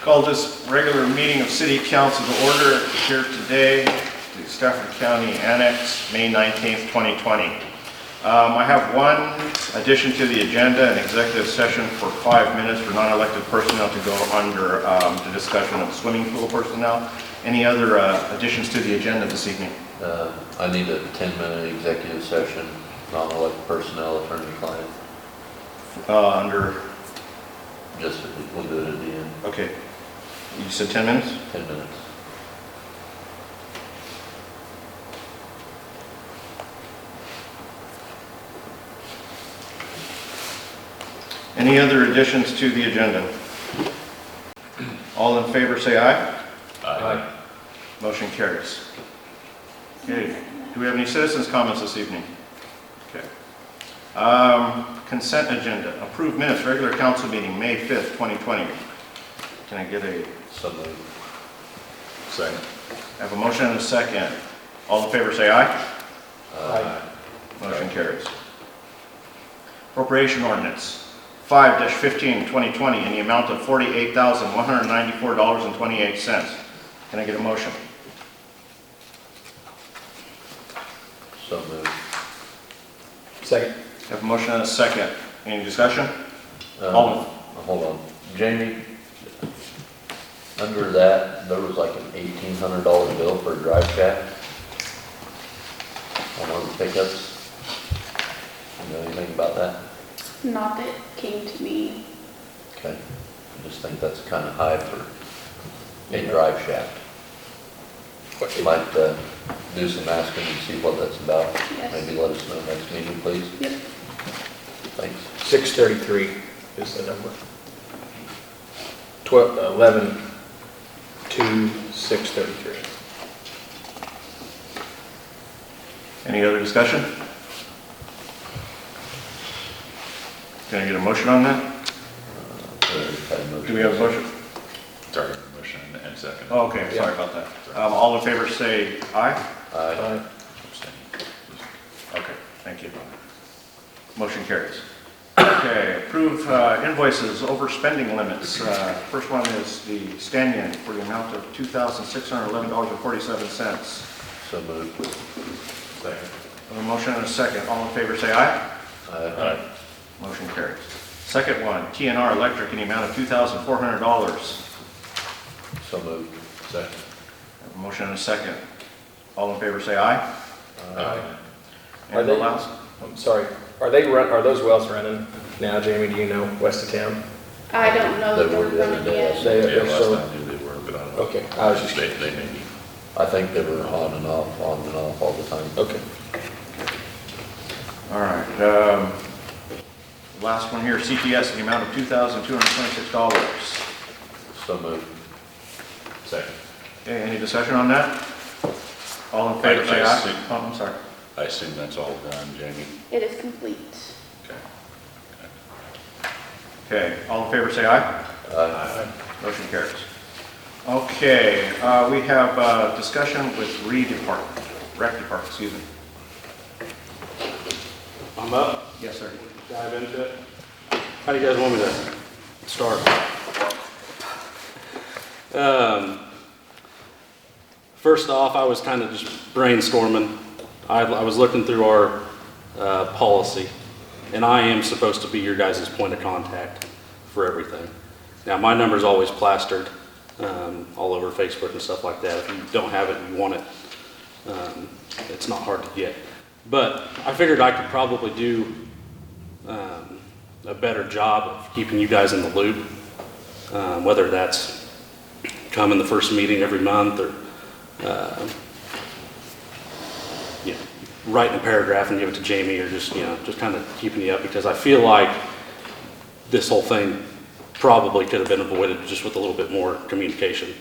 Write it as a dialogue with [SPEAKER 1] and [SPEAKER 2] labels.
[SPEAKER 1] Call this regular meeting of City Council to order here today, the Stafford County Annex, May 19th, 2020. Um, I have one addition to the agenda, an executive session for five minutes for non-elected personnel to go under um, the discussion of swimming pool personnel. Any other uh, additions to the agenda this evening?
[SPEAKER 2] Uh, I need a 10-minute executive session, non-elected personnel, attorney-client,
[SPEAKER 1] Uh, Under,
[SPEAKER 2] just, we'll do it at the end,
[SPEAKER 1] okay, you said 10 minutes?
[SPEAKER 2] 10 minutes.
[SPEAKER 1] Any other additions to the agenda? All in favor, say aye.
[SPEAKER 2] Aye.
[SPEAKER 1] Motion carries. Okay, do we have any citizens' comments this evening? Okay. Um, Consent agenda, approved minutes, regular council meeting, May 5th, 2020. Can I get a,
[SPEAKER 2] So moved.
[SPEAKER 3] Second.
[SPEAKER 1] have a motion and a second? All in favor, say aye.
[SPEAKER 2] Aye.
[SPEAKER 1] Motion carries. Appropriation ordinance, 5-15, 2020, in the amount of $48,194.28. Can I get a motion?
[SPEAKER 2] So moved.
[SPEAKER 3] Second.
[SPEAKER 1] Have a motion and a second. Any discussion?
[SPEAKER 2] Uh,
[SPEAKER 1] All in-
[SPEAKER 2] Hold on, Jamie, under that, there was like an $1,800 bill for a drive shaft on one of the pickups. You know anything about that?
[SPEAKER 4] Not that it came to me.
[SPEAKER 2] Okay, I just think that's kind of high for a drive shaft. Might uh, do some asking and see what that's about.
[SPEAKER 4] Yes.
[SPEAKER 2] Maybe let us know next meeting, please.
[SPEAKER 4] Yep.
[SPEAKER 2] Thanks.
[SPEAKER 3] Six thirty-three is the number. Twelve, eleven, two, six thirty-three.
[SPEAKER 1] Any other discussion? Can I get a motion on that? Do we have a motion?
[SPEAKER 5] Sorry, motion and second.
[SPEAKER 1] Oh, okay, sorry about that. Um, All in favor, say aye.
[SPEAKER 2] Aye.
[SPEAKER 3] Aye.
[SPEAKER 5] Abstain.
[SPEAKER 1] Okay, thank you. Motion carries. Okay, approve uh, invoices, overspending limits. Uh, First one is the stand-in for the amount of $2,611.47.
[SPEAKER 2] So moved.
[SPEAKER 5] Second.
[SPEAKER 1] A motion and a second. All in favor, say aye.
[SPEAKER 2] Aye.
[SPEAKER 1] Motion carries. Second one, TNR Electric in the amount of $2,400.
[SPEAKER 2] So moved.
[SPEAKER 5] Second.
[SPEAKER 1] A Motion and a second. All in favor, say aye.
[SPEAKER 5] Aye.
[SPEAKER 3] Are
[SPEAKER 1] And the
[SPEAKER 3] they-
[SPEAKER 1] last,
[SPEAKER 3] Uh, I'm sorry, are they run, are those wells running now, Jamie, do you know, west of town?
[SPEAKER 4] I don't know
[SPEAKER 2] They
[SPEAKER 4] that
[SPEAKER 2] were
[SPEAKER 4] they're
[SPEAKER 2] the other
[SPEAKER 4] running
[SPEAKER 2] day, I
[SPEAKER 4] yet.
[SPEAKER 2] said-
[SPEAKER 3] They,
[SPEAKER 5] Yeah,
[SPEAKER 3] they're
[SPEAKER 5] last
[SPEAKER 3] still,
[SPEAKER 5] time I knew they were, but I don't know.
[SPEAKER 3] okay, I was just,
[SPEAKER 5] They, they may be.
[SPEAKER 2] I think they were on and off, on and off all the time.
[SPEAKER 1] Oh.
[SPEAKER 3] okay.
[SPEAKER 1] all right. um, Last one here, CTS in the amount of $2,226.
[SPEAKER 2] So moved.
[SPEAKER 5] Second.
[SPEAKER 1] Okay, any discussion on that? All in favor, say
[SPEAKER 5] I- I see.
[SPEAKER 1] aye. Oh, I'm sorry.
[SPEAKER 5] I assume that's all done, Jamie?
[SPEAKER 4] It is complete.
[SPEAKER 5] Okay.
[SPEAKER 1] Okay, all in favor, say aye.
[SPEAKER 2] Aye.
[SPEAKER 1] Motion carries. Okay, uh, we have uh, discussion with re department, rec department, excuse me.
[SPEAKER 6] I'm up,
[SPEAKER 1] Yes, sir.
[SPEAKER 6] dive into it. How do you guys want me to start? Um, First off, I was kind of just brainstorming. I, I was looking through our, uh, policy, and I am supposed to be your guys' point of contact for everything. Now, my number's always plastered, um, all over Facebook and stuff like that. If you don't have it and you want it, um, it's not hard to get. But I figured I could probably do um, a better job of keeping you guys in the loop, um, whether that's coming the first meeting every month or, uh, you know, writing a paragraph and give it to Jamie or just, you know, just kind of keeping you up because I feel like this whole thing probably could have been avoided just with a little bit more communication.